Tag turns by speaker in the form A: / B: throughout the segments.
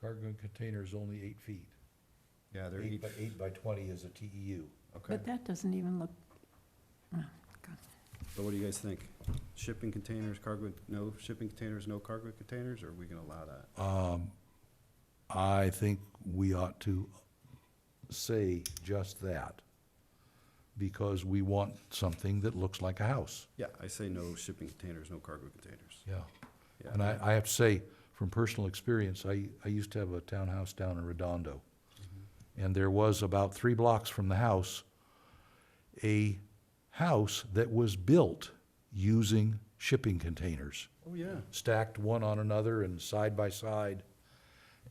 A: cargo container is only eight feet.
B: Yeah, they're
A: Eight
B: eight,
A: by, eight by twenty is a E TEU.
B: okay.
C: But that doesn't even look, oh,
B: So what do you guys think? Shipping containers, cargo, no shipping containers, no cargo containers, or are we gonna allow that?
A: Uh, I think we ought to say just that, because we want something that looks like a house.
B: Yeah, I say no shipping containers, no cargo containers.
A: Yeah.
B: Yeah.
A: And I, I have to say, from personal experience, I, I used to have a townhouse down in Redondo. And there was about three blocks from the house, a house that was built using shipping containers,
B: Oh, yeah,
A: stacked one on another and side by side.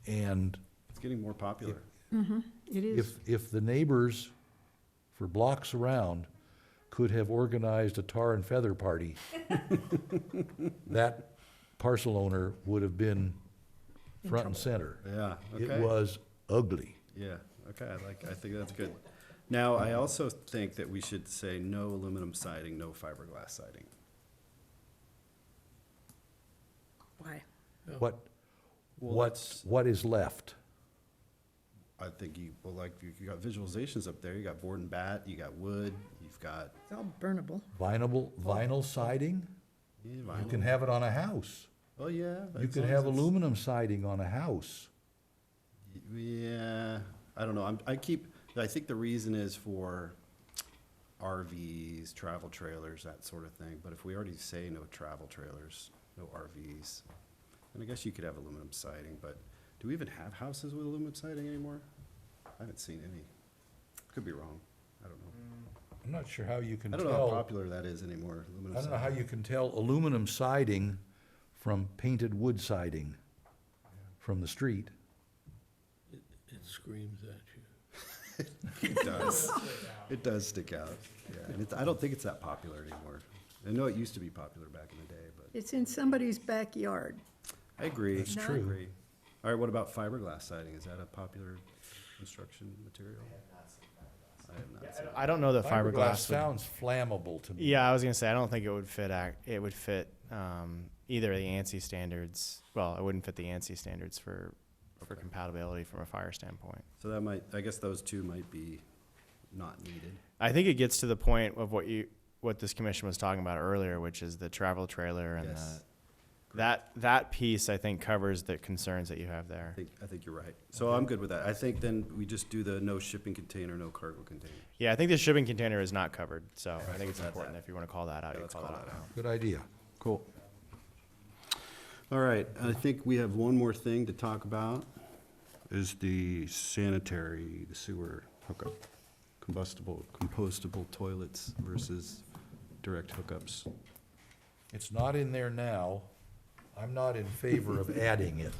A: And
B: it's getting more popular.
C: it is,
A: if, if the neighbors for blocks around could have organized a tar and feather party, that parcel owner would have been front and center.
B: Yeah,
A: It
B: okay.
A: was ugly.
B: Yeah, okay, I like, I think that's good. Now, I also think that we should say no aluminum siding, no fiberglass siding.
C: why?
A: What,
B: Well,
A: what,
B: that's-
A: what is left?
B: I think you, well, like, you you got visualizations up there, you got board and bat, you got wood, you've got,
C: It's all burnable.
A: Vinyl, vinyl siding?
B: yeah,
A: You can
B: vinyl.
A: have it on a house.
B: Oh, yeah.
A: You
B: as
A: could
B: long as
A: have
B: it's-
A: aluminum siding on a house.
B: Yeah, I don't know, I'm, I keep, I think the reason is for RVs, travel trailers, that sort of thing, but if we already say no travel trailers, no RVs, then I guess you could have aluminum siding, but do we even have houses with aluminum siding anymore? I haven't seen any. Could be wrong, I don't know.
A: I'm not sure how you can
B: I
A: tell.
B: don't know how popular that is anymore, aluminum
A: I don't know how
B: siding.
A: you can tell aluminum siding from painted wood siding from the street.
D: It screams at
B: It does. It does stick out, yeah, and it's, I don't think it's that popular anymore. I know it used to be popular back in the day, but.
C: It's in somebody's backyard.
B: I agree.
A: That's Not- true.
B: I agree. All right, what about fiberglass siding? Is that a popular construction material? I have not seen.
E: I don't know that fiberglass. would-
A: Sounds flammable to me.
E: yeah, I was gonna say I don't think it would fit. ac- It would fit um, either the ANSI standards. Well, it wouldn't fit the ANSI standards for for compatibility from a fire standpoint.
B: So that might, I guess those two might be not needed.
E: I think it gets to the point of what you what this commission was talking about earlier, which is the travel trailer and
B: Yes.
E: the, that that piece. I think covers the concerns that you have
B: I
E: there.
B: think, I think you're right. So I'm good with that. I think then we just do the no shipping container, no cargo container.
E: Yeah, I think the shipping container is not covered, so I think it's
B: That's
E: important
B: that.
E: if you want to call that out,
B: Yeah,
E: you
B: let's
E: call,
B: call
E: that out.
B: that out.
A: Good idea.
B: Cool. All right, I think we have one more thing to talk about, is the sanitary, the sewer hookup. Combustible, compostable toilets versus direct hookups.
A: It's not in there now. I'm not in favor of adding it.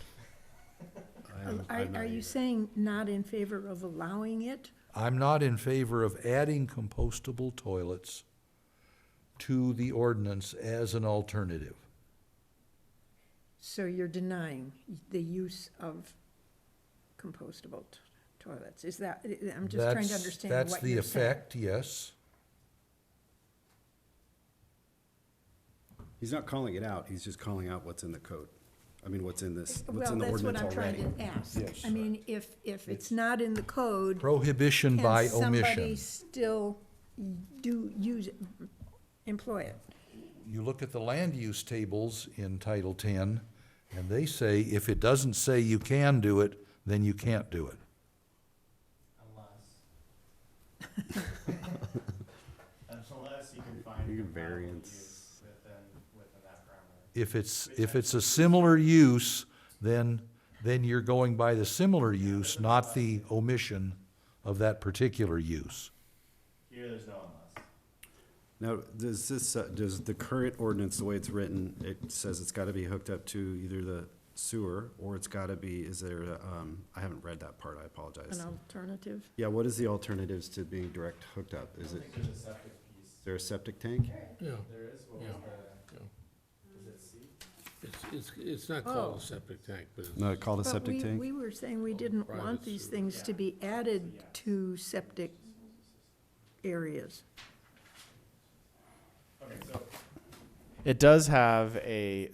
B: I am-
C: Um, Are,
B: I'm not
C: are you
B: either.
C: saying not in favor of allowing it?
A: I'm not in favor of adding compostable toilets to the ordinance as an alternative.
C: So you're denying the use of compostable t- toilets? Is that, I'm just trying to
A: That's-
C: understand what you're
A: That's the
C: saying.
A: effect, yes.
B: He's not calling it out, he's just calling out what's in the code. I mean, what's in this, what's
C: Well,
B: in the
C: that's what
B: ordinance
C: I'm
B: already.
C: trying to ask.
A: Yes.
C: I mean, if, if it's not in the code,
A: Prohibition by
C: can somebody
A: omission.
C: still do, use, it, employ it?
A: You look at the land use tables in Title Ten, and they say if it doesn't say you can do it, then you can't do it.
E: Unless. Unless you can find.
B: You can variance.
E: Within, within that parameter.
A: If it's, if it's a similar use, then, then you're going by the similar use, not the omission of that particular use.
E: Here, there's no unless.
B: Now, does this, uh, does the current ordinance, the way it's written, it says it's gotta be hooked up to either the sewer, or it's gotta be, is there, a, um, I haven't read that part, I apologize.
C: An alternative?
B: Yeah, what is the alternatives to being direct hooked up? Is it, is
E: There's a septic piece.
B: there a septic tank?
D: you. Yeah,
E: There is, what
D: was Yeah.
E: the,
D: yeah.
E: is it C?
D: It's, it's, it's not called
C: Oh.
D: a septic tank, but it's.
B: No, called a
C: But
B: septic
C: we-
B: tank?
C: We were saying we didn't
D: private
C: want these
D: sewer.
C: things to be added to septic areas.
E: It does have a